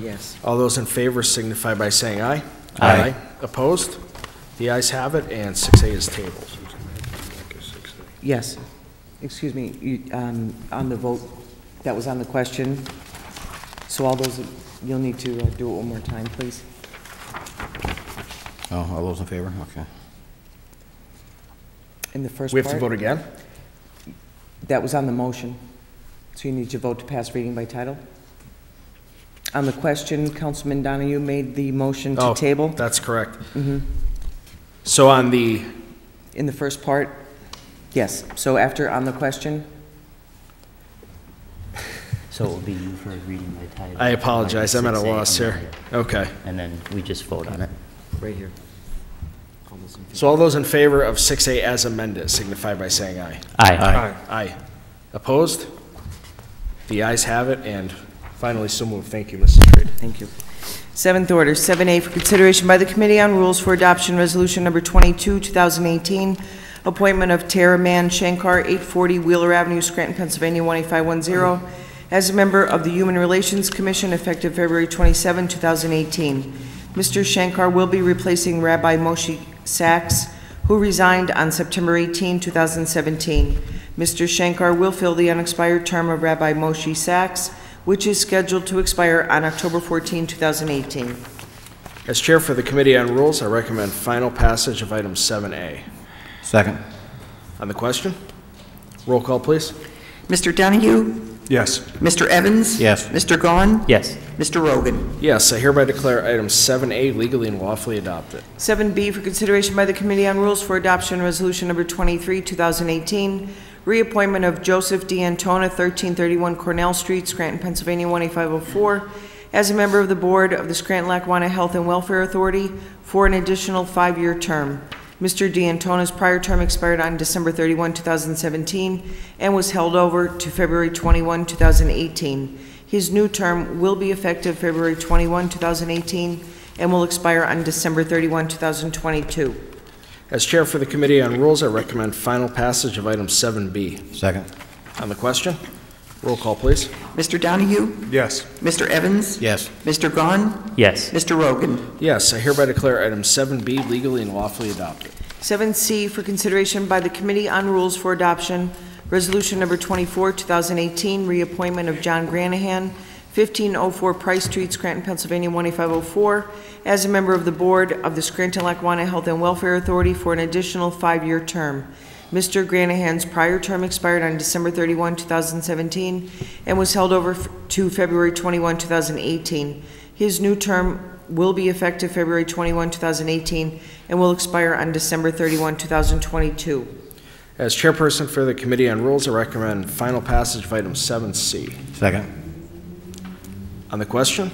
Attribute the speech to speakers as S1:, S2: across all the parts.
S1: Yes.
S2: All those in favor signify by saying aye.
S3: Aye.
S2: Opposed? The ayes have it, and 6A is tabled.
S1: Yes. Excuse me, you, um, on the vote, that was on the question. So all those, you'll need to uh, do it one more time, please.
S3: Oh, all those in favor? Okay.
S1: In the first
S2: We have to
S1: part,
S2: vote again?
S1: that was on the motion. So you need to vote to pass reading by title. On the question, Councilman Donahue made the motion to
S2: Oh,
S1: table Mm-hmm.
S2: That's correct. So on the,
S1: in the first part. Yes, so after on the question,
S4: So it will be you for reading my title.
S2: I apologize, I'm at a
S4: Like 6A,
S2: loss
S4: I'm
S2: here.
S4: not
S2: Okay.
S4: And then we just vote on it.
S1: right here.
S2: So all those in favor of 6A as amended signify by saying aye.
S4: Aye.
S2: Aye. Opposed? The ayes have it, and finally, so moved. Thank you, Mrs. Reed.
S1: Thank you. Seventh order, 7A, for consideration by the Committee on Rules for Adoption, Resolution Number 22, 2018, appointment of Tara Mann Shankar, 840 Wheeler Avenue, Scranton, Pennsylvania, 18510, as a member of the Human Relations Commission effective February 27, 2018. Mr. Shankar will be replacing Rabbi Moshe Sachs, who resigned on September 18, 2017. Mr. Shankar will fill the unexpired term of Rabbi Moshe Sachs, which is scheduled to expire on October 14, 2018.
S2: As Chair for the Committee on Rules, I recommend final passage of item 7A.
S3: Second.
S2: On the question? Roll call, please.
S5: Mr. Donahue?
S2: Yes.
S5: Mr. Evans?
S3: Yes.
S5: Mr. Gahn?
S4: Yes.
S5: Mr. Rogan?
S2: Yes, I hereby declare item 7A legally and lawfully adopted.
S1: 7B for consideration by the Committee on Rules for Adoption, Resolution Number 23, 2018, reappointment of Joseph D. Antona, 1331 Cornell Street, Scranton, Pennsylvania, 18504, as a member of the Board of the Scranton-Lackawanna Health and Welfare Authority for an additional five-year term. Mr. D. Antona's prior term expired on December 31, 2017, and was held over to February 21, 2018. His new term will be effective February 21, 2018, and will expire on December 31, 2022.
S2: As Chair for the Committee on Rules, I recommend final passage of item 7B.
S3: Second.
S2: On the question? Roll call, please.
S5: Mr. Donahue?
S3: Yes.
S5: Mr. Evans?
S3: Yes.
S5: Mr. Gahn?
S4: Yes.
S5: Mr. Rogan?
S2: Yes, I hereby declare item 7B legally and lawfully adopted.
S1: 7C for consideration by the Committee on Rules for Adoption, Resolution Number 24, 2018, reappointment of John Granahan, 1504 Price Street, Scranton, Pennsylvania, 18504, as a member of the Board of the Scranton-Lackawanna Health and Welfare Authority for an additional five-year term. Mr. Granahan's prior term expired on December 31, 2017, and was held over f- to February 21, 2018. His new term will be effective February 21, 2018, and will expire on December 31, 2022.
S2: As Chairperson for the Committee on Rules, I recommend final passage of item 7C.
S3: Second.
S2: On the question?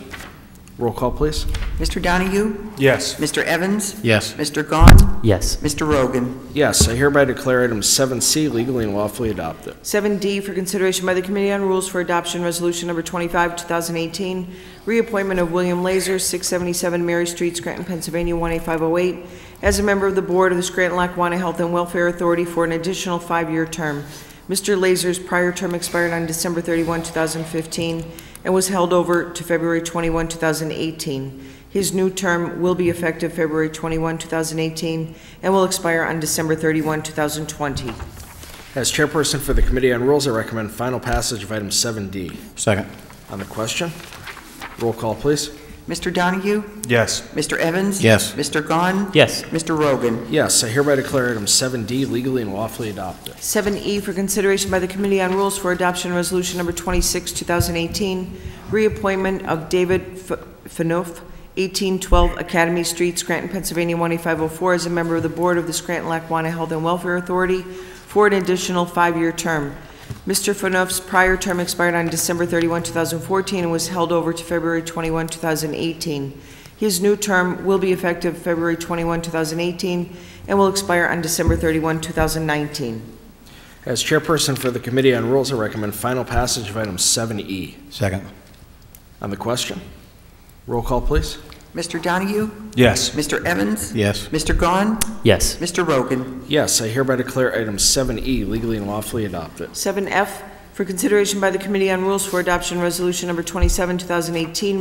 S2: Roll call, please.
S5: Mr. Donahue?
S3: Yes.
S5: Mr. Evans?
S3: Yes.
S5: Mr. Gahn?
S4: Yes.
S5: Mr. Rogan?
S2: Yes, I hereby declare item 7C legally and lawfully adopted.
S1: 7D for consideration by the Committee on Rules for Adoption, Resolution Number 25, 2018, reappointment of William Laser, 677 Mary Street, Scranton, Pennsylvania, 18508, as a member of the Board of the Scranton-Lackawanna Health and Welfare Authority for an additional five-year term. Mr. Laser's prior term expired on December 31, 2015, and was held over to February 21, 2018. His new term will be effective February 21, 2018, and will expire on December 31, 2020.
S2: As Chairperson for the Committee on Rules, I recommend final passage of item 7D.
S3: Second.
S2: On the question? Roll call, please.
S5: Mr. Donahue?
S3: Yes.
S5: Mr. Evans?
S3: Yes.
S5: Mr. Gahn?
S4: Yes.
S5: Mr. Rogan?
S2: Yes, I hereby declare item 7D legally and lawfully adopted.
S1: 7E E for consideration by the Committee on Rules for Adoption Resolution Number 26, 2018, reappointment of David F- Fanouf, 1812 Academy Street, Scranton, Pennsylvania, 18504, as a member of the Board of the Scranton-Lackawanna Health and Welfare Authority for an additional five-year term. Mr. Fanouf's prior term expired on December 31, 2014, and was held over to February 21, 2018. His new term will be effective February 21, 2018, and will expire on December 31, 2019.
S2: As Chairperson for the Committee on Rules, I recommend final passage of item 7E.
S3: Second.
S2: On the question? Roll call, please.
S5: Mr. Donahue?
S3: Yes.
S5: Mr. Evans?
S3: Yes.
S5: Mr. Gahn?
S4: Yes.
S5: Mr. Rogan?
S2: Yes, I hereby declare item 7E legally and lawfully adopted.
S1: 7F for consideration by the Committee on Rules for Adoption Resolution Number 27, 2018,